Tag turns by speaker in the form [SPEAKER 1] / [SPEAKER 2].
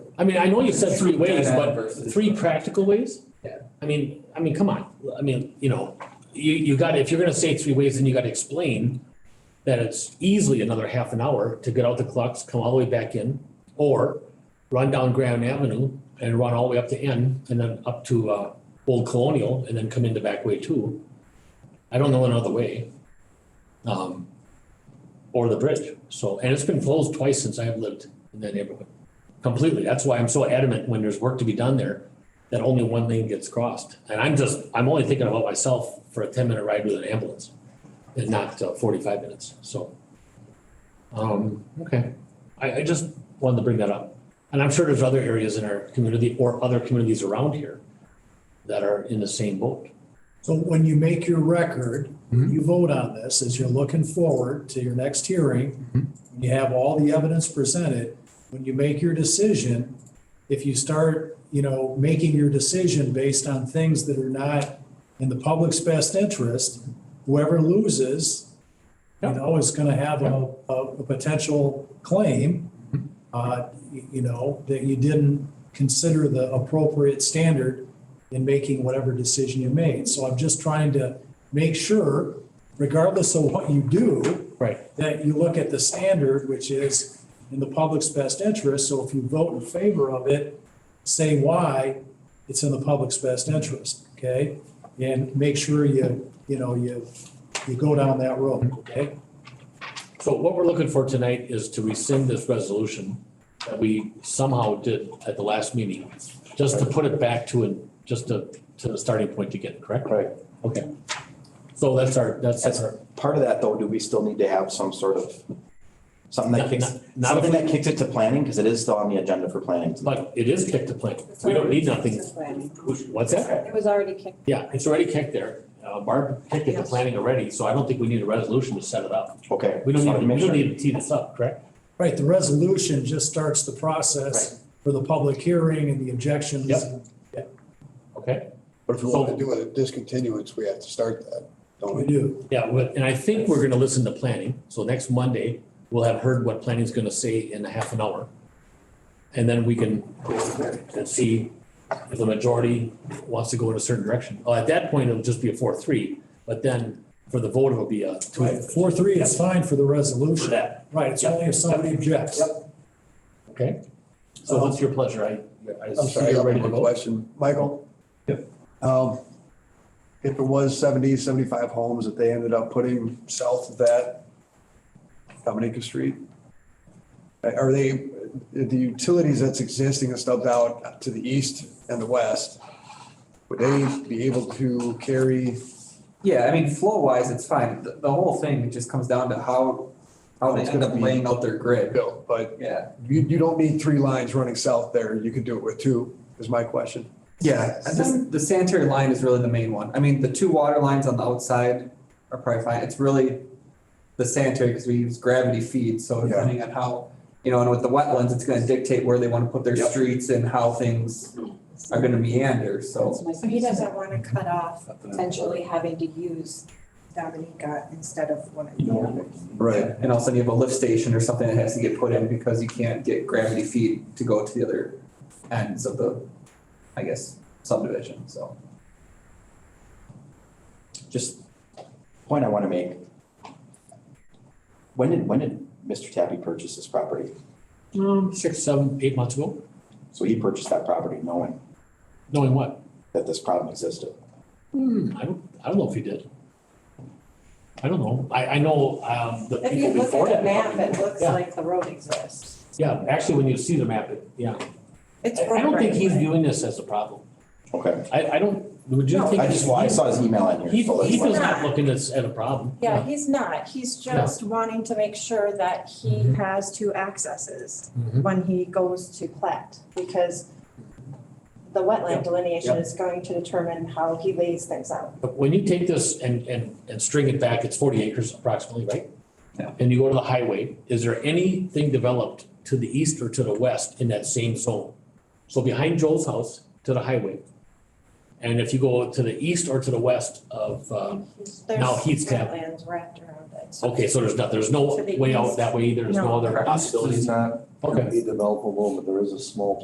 [SPEAKER 1] I mean, I know you said three
[SPEAKER 2] Three
[SPEAKER 1] ways,
[SPEAKER 2] dead
[SPEAKER 1] but
[SPEAKER 2] versus-
[SPEAKER 1] three practical ways?
[SPEAKER 2] Yeah.
[SPEAKER 1] I mean, I mean, come on, I mean, you know, you, you gotta, if you're gonna say three ways, then you gotta explain that it's easily another half an hour to get out the clocks, come all the way back in, or run down Grand Avenue and run all the way up to N and then up to, uh, Old Colonial and then come in the back way too. I don't know another way. Um, or the bridge, so, and it's been closed twice since I've lived in that neighborhood. Completely. That's why I'm so adamant when there's work to be done there, that only one lane gets crossed. And I'm just, I'm only thinking about myself for a ten minute ride with an ambulance and not uh, forty-five minutes, so. Um, okay. I, I just wanted to bring that up. And I'm sure there's other areas in our community or other communities around here that are in the same boat.
[SPEAKER 3] So when you make your record,
[SPEAKER 1] Mhm.
[SPEAKER 3] you vote on this as you're looking forward to your next hearing.
[SPEAKER 1] Mhm.
[SPEAKER 3] You have all the evidence presented. When you make your decision, if you start, you know, making your decision based on things that are not in the public's best interest, whoever loses, you
[SPEAKER 1] Yep.
[SPEAKER 3] know, is gonna have a, a, a potential claim, uh, y- you know, that you didn't consider the appropriate standard in making whatever decision you made. So I'm just trying to make sure, regardless of what you do,
[SPEAKER 1] Right.
[SPEAKER 3] that you look at the standard, which is in the public's best interest. So if you vote in favor of it, say why it's in the public's best interest, okay? And make sure you, you know, you, you go down that road, okay?
[SPEAKER 1] So what we're looking for tonight is to rescind this resolution that we somehow did at the last meeting, just to put it back to, an- just to, to the starting point again, correct?
[SPEAKER 4] Right.
[SPEAKER 1] Okay. So that's our, that's our.
[SPEAKER 4] Part of that, though, do we still need to have some sort of, something that kicks,
[SPEAKER 1] Not,
[SPEAKER 4] something
[SPEAKER 1] if
[SPEAKER 4] that
[SPEAKER 1] we-
[SPEAKER 4] kicks it to planning, because it is still on the agenda for planning.
[SPEAKER 1] but it is kicked to plan. We don't need nothing. What's that?
[SPEAKER 5] It was already kicked.
[SPEAKER 1] Yeah, it's already kicked there. Uh, Barb kicked it to
[SPEAKER 5] Yes.
[SPEAKER 1] planning already, so I don't think we need a resolution to set it up.
[SPEAKER 4] Okay.
[SPEAKER 1] We don't
[SPEAKER 4] just wanted
[SPEAKER 1] need,
[SPEAKER 4] to make
[SPEAKER 1] we don't
[SPEAKER 4] sure.
[SPEAKER 1] need to tee this up, correct?
[SPEAKER 3] Right, the resolution just starts the process for the public hearing and the objections.
[SPEAKER 1] Yep. Okay?
[SPEAKER 6] But if we want to do a discontinuance, we have to start that, don't
[SPEAKER 3] We
[SPEAKER 6] we?
[SPEAKER 3] do.
[SPEAKER 1] Yeah, but- and I think we're gonna listen to planning, so next Monday, we'll have heard what planning's gonna say in a half an hour. And then we can go from there and see if the majority wants to go in a certain direction. Uh, At that point, it'll just be a four, three, but then for the vote, it'll be a two
[SPEAKER 3] Right, four, three is fine for the
[SPEAKER 1] for
[SPEAKER 3] resolution.
[SPEAKER 1] that,
[SPEAKER 3] Right, it's only if somebody objects.
[SPEAKER 1] okay? So what's your pleasure? I, I
[SPEAKER 6] I'm sorry, I
[SPEAKER 1] see you're
[SPEAKER 6] got
[SPEAKER 1] ready to
[SPEAKER 6] one more
[SPEAKER 1] vote.
[SPEAKER 6] question. Michael? Um, If it was 70, 75 homes that they ended up putting south of that, Dominica Street, are they, the utilities that's existing and stubbed out to the east and the west, would they be able to carry
[SPEAKER 2] Yeah, I mean, flow wise, it's fine. The, the whole thing just comes down to how, how they
[SPEAKER 6] It's
[SPEAKER 2] end
[SPEAKER 6] gonna
[SPEAKER 2] up
[SPEAKER 6] be-
[SPEAKER 2] laying out their grid.
[SPEAKER 6] bill? But
[SPEAKER 2] Yeah,
[SPEAKER 6] you, you don't need three lines running south there. You could do it with two, is my question.
[SPEAKER 2] yeah, and this, the sanitary line is really the main one. I mean, the two water lines on the outside are probably fine. It's really the sanitary, because we use gravity feed, so
[SPEAKER 6] Yeah.
[SPEAKER 2] depending on how, you know, and with the wetlands, it's gonna dictate where they wanna put their
[SPEAKER 6] Yep.
[SPEAKER 2] streets and how things are gonna meander, so.
[SPEAKER 5] So he doesn't want to cut off potentially having to use Dominica instead of one of the others.
[SPEAKER 6] Right.
[SPEAKER 2] And also you have a lift station or something that has to get put in because you can't get gravity feed to go to the other ends of the, I guess, subdivision, so.
[SPEAKER 4] Just point I want to make. When did, when did Mr. Tappy purchase this property?
[SPEAKER 1] Um, six, seven, eight months ago,
[SPEAKER 4] So he purchased that property knowing
[SPEAKER 1] knowing what?
[SPEAKER 4] that this problem existed.
[SPEAKER 1] Hmm, I don't, I don't know if he did. I don't know. I, I know, um, the
[SPEAKER 5] If you
[SPEAKER 1] people
[SPEAKER 5] look
[SPEAKER 1] before
[SPEAKER 5] at
[SPEAKER 1] that.
[SPEAKER 5] the map, it looks
[SPEAKER 1] Yeah.
[SPEAKER 5] like the road exists.
[SPEAKER 1] Yeah, actually, when you see the map, it, yeah.
[SPEAKER 5] It's
[SPEAKER 1] I I don't think he's
[SPEAKER 5] right-of-way.
[SPEAKER 1] viewing this as a problem.
[SPEAKER 4] Okay.
[SPEAKER 1] I, I don't, would you
[SPEAKER 5] No,
[SPEAKER 1] think?
[SPEAKER 4] I just, I saw his email in here.
[SPEAKER 1] He,
[SPEAKER 4] so that's
[SPEAKER 1] he
[SPEAKER 4] why-
[SPEAKER 1] does not look at this as a problem.
[SPEAKER 5] Yeah, he's not. He's just wanting to make sure that he
[SPEAKER 1] Mhm.
[SPEAKER 5] has two accesses
[SPEAKER 1] Mhm.
[SPEAKER 5] when he goes to plat. Because the wetland delineation is going to determine how he lays things out.
[SPEAKER 1] But when you take this and, and, and string it back, it's forty acres approximately, right?
[SPEAKER 2] Yeah.
[SPEAKER 1] And you go to the highway, is there anything developed to the east or to the west in that same zone? So behind Joel's house to the highway. And if you go to the east or to the west of, um, Now he's
[SPEAKER 5] There's
[SPEAKER 1] got-
[SPEAKER 5] wetlands wrapped around it. so-
[SPEAKER 1] okay, so there's not, there's no
[SPEAKER 5] To the
[SPEAKER 1] way out
[SPEAKER 5] east.
[SPEAKER 1] that way, there's no
[SPEAKER 5] No.
[SPEAKER 1] other
[SPEAKER 2] Correct.
[SPEAKER 1] possibilities.
[SPEAKER 7] It's not
[SPEAKER 1] Okay.
[SPEAKER 7] gonna be developable, but there is a small